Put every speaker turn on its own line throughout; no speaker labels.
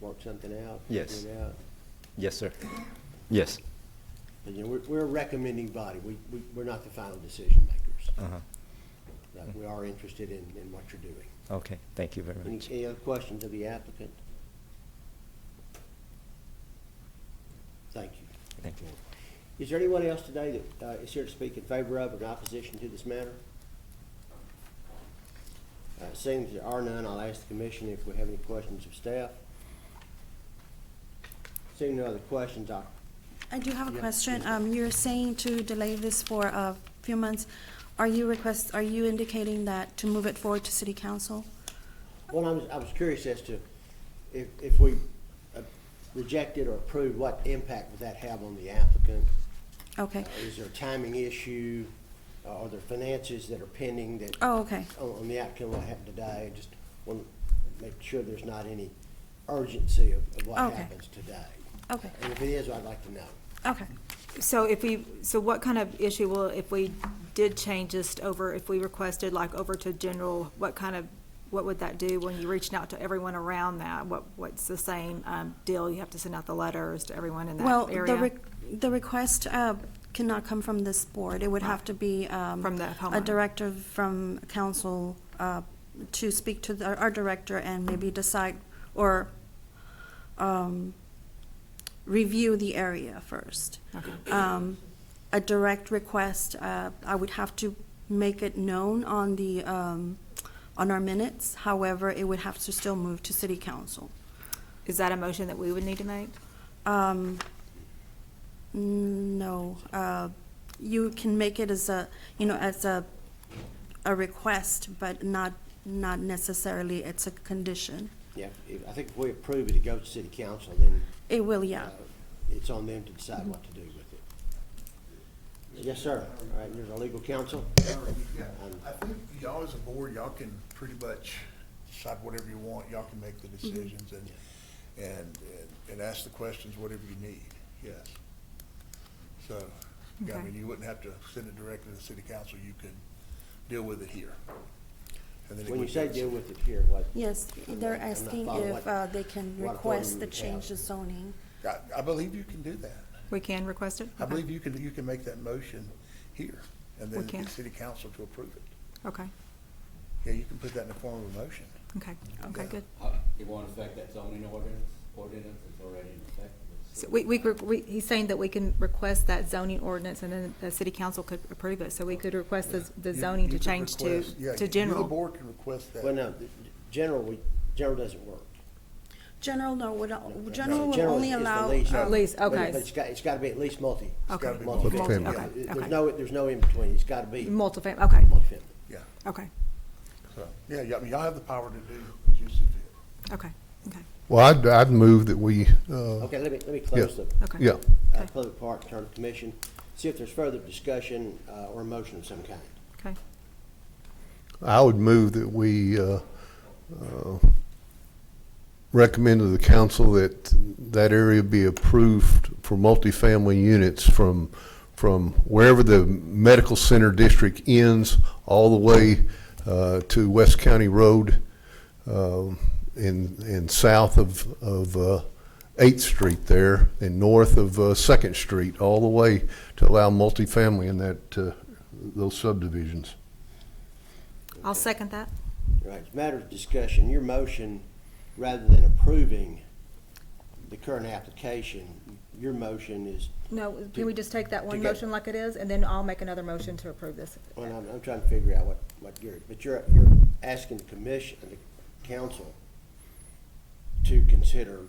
work something out.
Yes.
figure it out.
Yes, sir. Yes.
And, you know, we're, we're a recommending body. We, we, we're not the final decision makers.
Uh-huh.
But we are interested in, in what you're doing.
Okay, thank you very
Any,
much.
any other questions of the applicant? Thank you.
Thank you.
Is there anyone else today that uh, is here to speak in favor of or in opposition to this matter? Uh, Seeing as there are none, I'll ask the commission if we have any questions of staff. Seeing no other questions, I,
I do have a
Yeah,
question.
please.
Um, you're saying to delay this for a few months. Are you request, are you indicating that to move it forward to city council?
well, I was, I was curious as to if, if we uh, rejected or approved, what impact would that have on the applicant?
Okay.
Uh, Is there a timing issue? Uh, Are there finances that are pending that?
Oh, okay.
on, on the outcome what happened today, just want to make sure there's not any urgency of, of what
Okay.
happens today.
Okay.
And if it is, I'd like to know.
Okay.
So if we, so what kind of issue will, if we did change this over, if we requested like over to general, what kind of, what would that do when you reached out to everyone around that? What, what's the same, um, deal? You have to send out the letters to everyone in
Well,
that
the,
area?
re- the request, uh, cannot come from this board. It would have to be, um,
From the
A
homeowner.
director from council, uh, to speak to the- our, our director and maybe decide or, um, review the area first.
Okay.
um, a direct request, uh, I would have to make it known on the, um, on our minutes. However, it would have to still move to city council.
Is that a motion that we would need to make?
Um, no, uh, you can make it as a, you know, as a, a request, but not, not necessarily it's a condition.
Yeah, if, I think if we approve it, it goes to city council, then.
It will,
uh,
yeah.
It's on them to decide what to do with it. Yes, sir. All right, there's our legal counsel.
Yeah, I think y'all as a board, y'all can pretty much decide whatever you want, y'all can make the
Mm-hmm.
decisions and, and, and- and ask the questions, whatever you need, yes. So, yeah, I
Okay.
mean, you wouldn't have to send it directly to the city council, you can deal with it here. And then it
When you
would
say
go-
deal with it here, what?
Yes, they're
I'm not
asking
following what-
if, uh, they can
what authority
request
we
the
have.
change the zoning.
I, I believe you can do that.
We can request it?
I
Okay.
believe you can, you can make that motion here and
We
then
can.
get city council to approve it.
Okay,
Yeah, you can put that in the form of a motion.
okay, okay,
Yeah.
good.
Uh, It won't affect that zoning ordinance, ordinance is already in effect.
So we, we, could- we, he's saying that we can request that zoning ordinance and then the city council could approve it. So we could request the, the
You-
zoning
you
to
could
change to,
request- yeah, you-
to
you,
general.
The board can request that.
Well, no, the- general, we, general doesn't work.
General, no, would,
No,
general will
general
only
is the
allow.
lease.
uh,
Lease,
But-
okay.
But it's got, it's got to be at least multi.
Okay.
gotta be
Multi,
Multi-
yeah.
okay, okay.
There's no, there's no in-between, it's got to be
Multifam, okay,
multifamily.
Yeah,
okay,
so, yeah, yeah, I mean, y'all have the power to do as you see fit.
okay, okay,
Well, I'd, I'd move that we, uh,
Okay, let me, let me close the
okay.
yeah,
uh,
Okay.
public part, turn to commission, see if there's further discussion uh, or a motion of some kind.
Okay,
I would move that we uh, uh, recommend to the council that that area be approved for multifamily units from, from wherever the medical center district ends, all the way uh, to West County Road um, and, and south of, of uh, Eighth Street there, and north of uh, Second Street, all the way to allow multifamily in that, uh, those subdivisions.
I'll second that.
All Right, it's a matter of discussion, your motion, rather than approving the current application, your motion is,
No, can we just take that one
To get-
motion like it is, and then I'll make another motion to approve this?
well, I'm, I'm trying to figure out what, what you're, but you're, you're asking the commission, the council to consider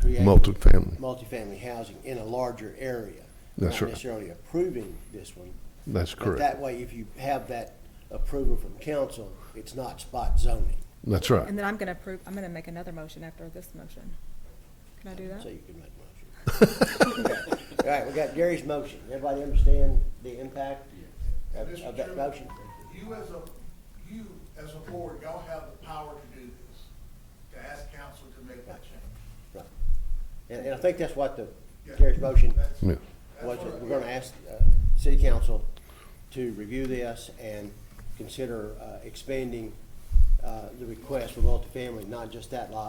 creating
Multifamily.
multifamily housing in a larger area.
That's
Not
right.
necessarily approving this one,
That's
But that
correct.
way, if you have that approval from council, it's not spot zoning,
That's
And
right.
then I'm gonna approve, I'm gonna make another motion after this motion. Can I do that?
so you can make a motion. All right, we got Gary's motion. Everybody understand the impact of
Mr.
of that
Chairman,
motion?
You as a, you as a board, y'all have the power to do this, to ask council to make that change.
Right. And, and I think that's what the,
Yeah.
Gary's motion
That's-
Yeah.
was,
that's what-
we're gonna ask, uh, city council to review this and consider, uh, expanding uh, the request for multifamily, not just that lot,